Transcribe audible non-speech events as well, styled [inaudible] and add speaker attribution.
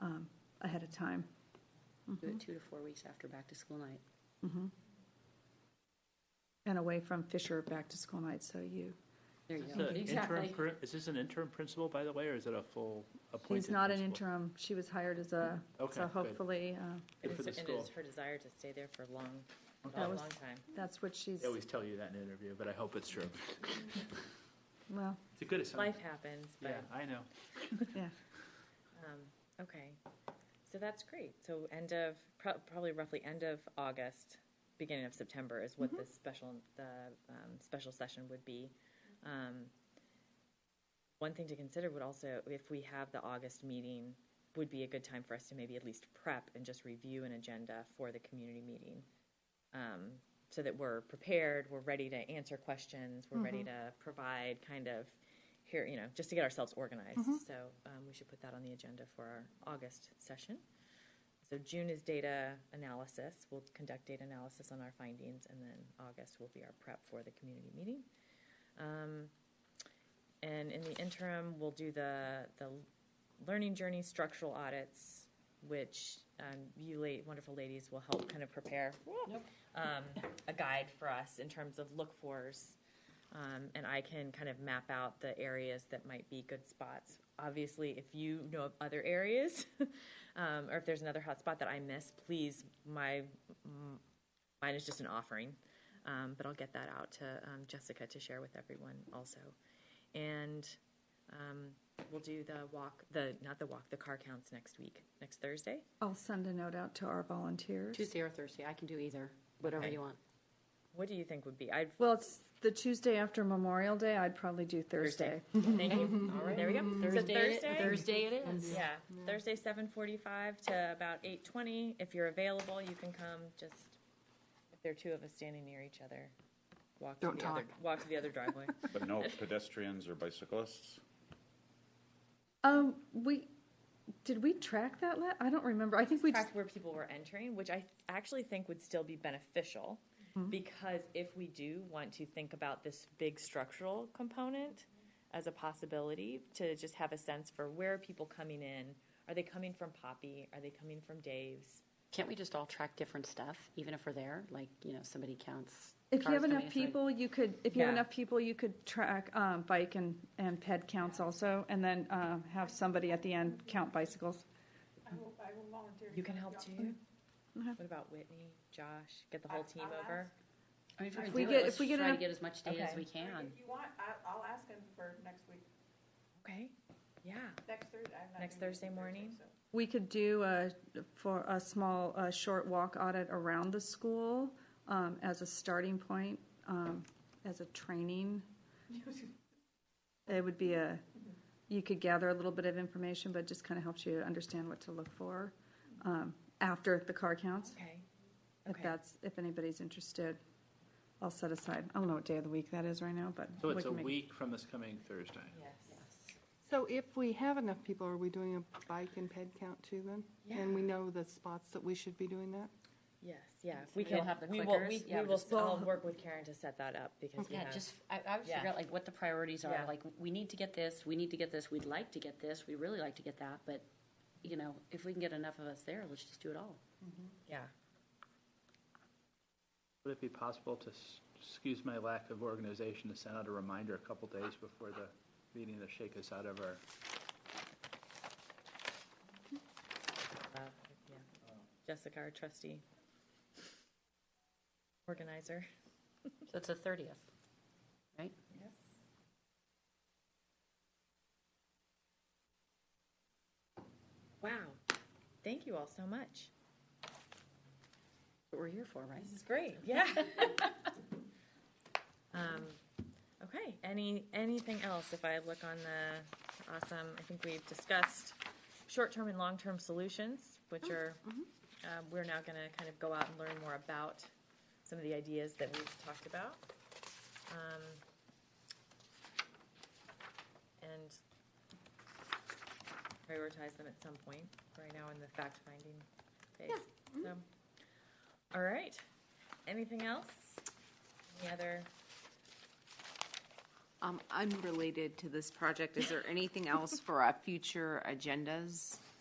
Speaker 1: um, ahead of time.
Speaker 2: Do
Speaker 1: Hmm.
Speaker 2: it two to four weeks after back-to-school night.
Speaker 1: And away from Fisher back to school night, so you,
Speaker 2: There you
Speaker 3: Is
Speaker 2: go.
Speaker 3: this a interim
Speaker 2: Exactly.
Speaker 3: pr- Is this an interim principal, by the way, or is it a full appointed?
Speaker 1: he's not an
Speaker 3: principal?
Speaker 1: interim, she was hired as a,
Speaker 3: Okay,
Speaker 1: so
Speaker 3: good.
Speaker 1: hopefully, uh,
Speaker 3: Good for the
Speaker 4: And it
Speaker 3: school.
Speaker 4: is her desire to stay there for a long,
Speaker 1: That
Speaker 4: long,
Speaker 1: was-
Speaker 4: long time.
Speaker 1: that's what she's,
Speaker 3: They always tell you that in an interview, but I hope it's true. [laughs]
Speaker 1: well,
Speaker 3: It's a good assumption.
Speaker 4: Life happens,
Speaker 3: Yeah,
Speaker 4: but,
Speaker 3: I know.
Speaker 1: yeah.
Speaker 4: um, okay. So that's great. So end of, pro- probably roughly end of August, beginning of September is
Speaker 1: Mm-hmm.
Speaker 4: what the special, the, um, special session would be. Um, One thing to consider would also, if we have the August meeting, would be a good time for us to maybe at least prep and just review an agenda for the community meeting. um, so that we're prepared, we're ready to answer questions, we're ready to provide kind of here, you know, just to get ourselves organized. So um, we should put that on the agenda for our August session. So June is data analysis. We'll conduct data analysis on our findings, and then August will be our prep for the community meeting. Um, and in the interim, we'll do the the learning journey structural audits, which um, you late wonderful ladies will help kind of prepare um, a guide for us in terms of look fors. Um, and I can kind of map out the areas that might be good spots. Obviously, if you know of other areas, [laughs] um, or if there's another hot spot that I miss, please, my mm, mine is just an offering, um, but I'll get that out to um, Jessica to share with everyone also. And um, we'll do the walk, the not the walk, the car counts next week, next Thursday.
Speaker 1: I'll send a note out to our volunteers.
Speaker 2: Tuesday or Thursday, I can do either, whatever
Speaker 4: Okay.
Speaker 2: you want.
Speaker 4: What do you think would be? I'd
Speaker 1: Well, it's the Tuesday after Memorial Day, I'd probably do Thursday.
Speaker 4: Thank you. All right, there we go. So
Speaker 2: Thursday, it-
Speaker 4: Thursday?
Speaker 2: Thursday it is.
Speaker 4: Yeah, Thursday, seven forty-five to about eight twenty. If you're available, you can come. Just if there are two of us standing near each other, walk to
Speaker 2: Don't
Speaker 4: the other,
Speaker 2: talk.
Speaker 4: walk to the
Speaker 2: [laughs]
Speaker 4: other driveway.
Speaker 5: But no pedestrians or bicyclists?
Speaker 1: Um, we, did we track that la, I don't remember, I think we just,
Speaker 4: Track where people were entering, which I actually think would still be beneficial because if we do want to think about this big structural component as a possibility to just have a sense for where are people coming in? Are they coming from Poppy? Are they coming from Dave's?
Speaker 2: Can't we just all track different stuff, even if we're there? Like, you know, somebody counts.
Speaker 1: if you
Speaker 2: cars
Speaker 1: have
Speaker 2: coming
Speaker 1: enough
Speaker 2: in, so I-
Speaker 1: people, you could, if you have
Speaker 4: Yeah.
Speaker 1: enough people, you could track, um, bike and, and ped counts also, and then, um, have somebody at the end count bicycles.
Speaker 6: I will, I will volunteer. to
Speaker 4: You can
Speaker 6: come
Speaker 4: help
Speaker 6: down.
Speaker 4: too. What about Whitney, Josh? Get the whole team
Speaker 6: I'll
Speaker 4: over.
Speaker 2: I mean, If
Speaker 1: If
Speaker 2: we're
Speaker 1: we
Speaker 2: gonna do
Speaker 1: get-
Speaker 2: it, let's
Speaker 1: if we get
Speaker 2: try to
Speaker 1: enough-
Speaker 2: get as much data as
Speaker 4: Okay.
Speaker 2: we
Speaker 6: Or
Speaker 2: can.
Speaker 6: If you want, I, I'll ask him for next week,
Speaker 4: Okay. Yeah.
Speaker 6: next Thursday. I'm not
Speaker 4: Next
Speaker 6: doing it
Speaker 4: Thursday morning?
Speaker 6: so-
Speaker 1: We could do a, for a small, uh short walk audit around the school, um, as a starting point, um, as a training. It would be a, you could gather a little bit of information, but it just kind of helps you understand what to look for, um, after the car counts.
Speaker 4: Okay.
Speaker 1: If
Speaker 4: Okay.
Speaker 1: that's, if anybody's interested, I'll set aside, I don't know what day of the week that is right now, but.
Speaker 3: So
Speaker 1: we
Speaker 3: it's
Speaker 1: can
Speaker 3: a
Speaker 1: make-
Speaker 3: week from this coming Thursday.
Speaker 4: Yes.
Speaker 7: So if we have enough people, are we doing a bike and ped count too then? And we know the spots that we should be doing that?
Speaker 4: Yes. Yeah.
Speaker 2: So
Speaker 4: We
Speaker 2: we'll
Speaker 4: can.
Speaker 2: have the
Speaker 4: We will.
Speaker 2: clickers.
Speaker 4: We,
Speaker 2: Yeah,
Speaker 4: we will.
Speaker 2: just-
Speaker 4: I'll work with Karen to set that up because we
Speaker 2: Yeah,
Speaker 4: have.
Speaker 2: just, I, I would
Speaker 4: Yeah.
Speaker 2: figure out like what the priorities are,
Speaker 4: Yeah.
Speaker 2: like, we need to get this, we need to get this, we'd like to get this, we really like to get that, but, you know, if we can get enough of us there, let's just do it all.
Speaker 4: yeah.
Speaker 3: Would it be possible to, s- excuse my lack of organization, to send out a reminder a couple days before the meeting to shake us out of our,
Speaker 4: Uh, yeah. Jessica, our trustee organizer.
Speaker 2: So it's the thirtieth, right?
Speaker 4: Yes. Wow. Thank you all so much.
Speaker 2: What we're here for, right?
Speaker 4: This is great, [laughs] yeah. Um, okay, any, anything else? If I look on the, awesome, I think we've discussed short-term and long-term solutions, which are, um, we're now gonna kind of go out and learn more about some of the ideas that we've talked about. Um, And prioritize them at some point, right now in the fact-finding phase. So, all right. Anything else? Any other?
Speaker 8: Um, unrelated to this project, is there anything else for our future agendas